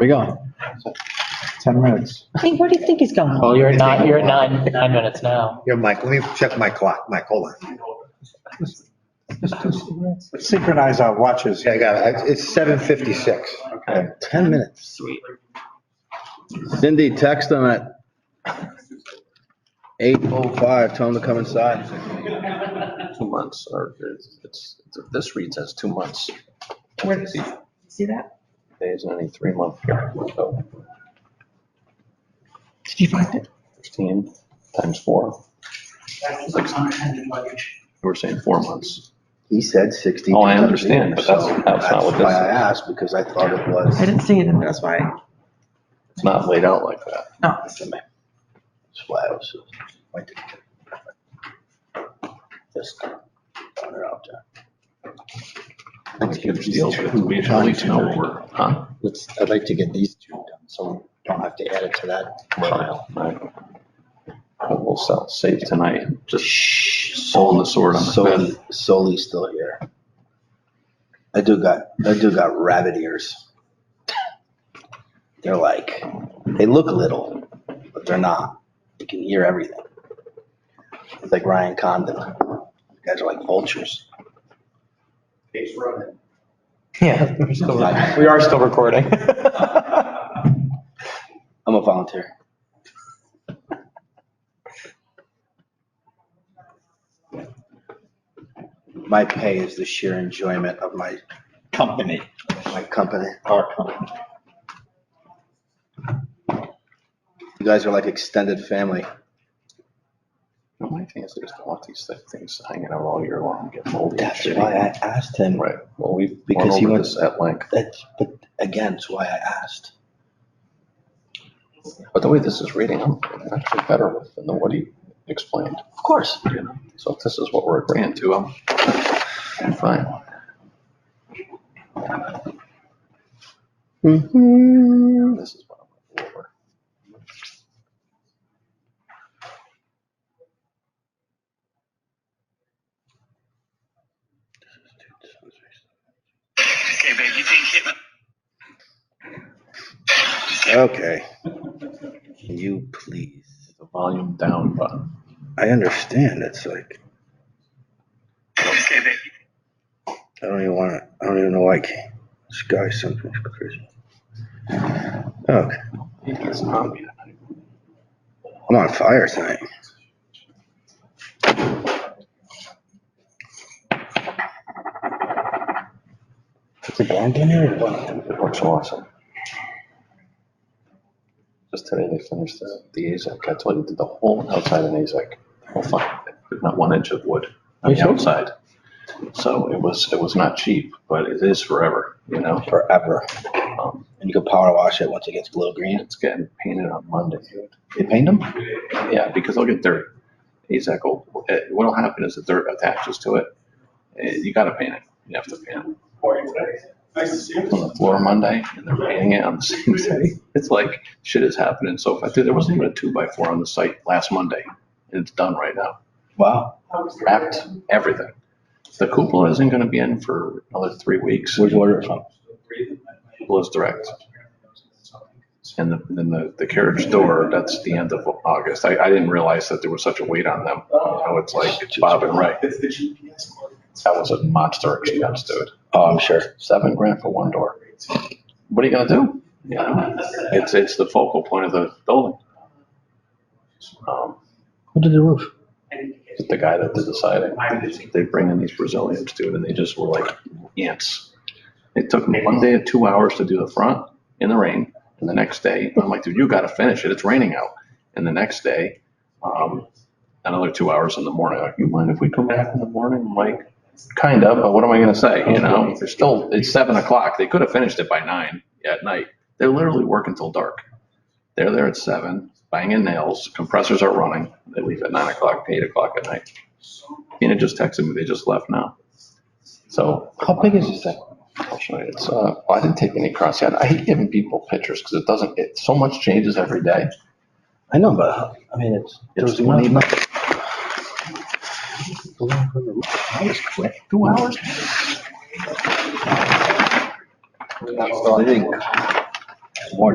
we going? Ten minutes. Hey, where do you think he's going? Well, you're at nine, you're at nine, nine minutes now. Here, Mike, let me check my clock. Mike, hold on. Synchronize our watches. Yeah, I got it. It's 7:56. Okay. 10 minutes. Sweet. Cindy, text them at 8:05, tell them to come inside. two months, or it's, this reads as two months. Where does he? See that? There isn't any three-month period, so Did you find it? 15 times four. We're saying four months. He said 60. Oh, I understand, but that's- that's not what this Why I is. asked, because I thought it I was. didn't see it, and that's why. Oh, It's not laid out like that. No. That's why I was, why did it This put it out there? huge deal, but we should at least know what we're, huh? Let's, I'd like to get these two done, so we don't have to add it to that file. Right. We'll sell, save tonight, just pulling the sword on the Soli, fence. Soli's still here. I do got, I do got rabbit ears. They're like, they look little, but they're not. You can hear everything. It's like Ryan Condon. Guys are like vultures. Yeah, we're still, we are still recording. I'm a volunteer. My pay is the sheer enjoyment of my, Company, my company. our company. You guys are like extended family. My thing is, I just don't want these things hanging out all year long, get moldy. and That's shitty. why I asked him. Right, well, we've gone Because he over went- this at length. That's, but again, it's why I asked. But the way this is reading, I'm actually better with than what he explained. Of course. you know? So if this is what we're agreeing to, I'm, I'm fine. This is what I'm looking for. Okay, babe, you think hit me? Okay. Can you please? The volume down button. I understand. It's like, Okay, babe. I don't even want to, I don't even know why I came. This guy, something's crazy. Okay. It's not me. I'm on fire tonight. It looks awesome. Just today they finished the, the AZAC. I told you, did the whole outside in E AZAC. Well, fine, not one inch of wood on the outside. So it was, it was not cheap, but it is forever, you know? Forever. Um, And you can power wash it once it gets blue green. It's getting painted on Monday. They paint them? Yeah, because they'll get dirty. AZAC will, eh, what'll happen is the dirt attaches to it. Eh, You gotta paint it. You have to paint it. On the floor Monday and they're painting it on the same day. It's like shit is happening so fast. Dude, There wasn't even a two by four on the site last Monday. and It's done right now. Wow. Wrapped, everything. The cupola isn't gonna be in for another three weeks. Where'd you order it from? Blows direct. And the- then the, the carriage door, that's the end of August. I, I didn't realize that there was such a weight on them. You know, it's like Bob and Ray. It's the GPS coordinates. That was a monster expense, dude. Oh, I'm sure. Seven grand for one door. What are you gonna do? You know, it's, it's the focal point of the building. Um, Who did the roof? The guy that did the siding, they bring in these Brazilians, dude, and they just were like ants. It took me one day and two hours to do the front in the rain. And the next day, I'm like, dude, you gotta finish it. It's raining out. And the next day, um, another two hours in the morning, like, you mind if we come back in the morning? I'm like, kind of, but what am I gonna say? You know, they're still, it's seven o'clock. They could have finished it by nine at night. They're literally working till dark. They're there at seven, banging nails, compressors are running. They leave at nine o'clock, eight o'clock at night. Tina just texted me, they just left now. So How big is this thing? I'll show you. It's, uh, I didn't take any cross yet. I hate giving people pictures because it doesn't, it, so much changes every day. I know, but I mean, it's. there was It's not 20 enough. Two hours? They didn't- More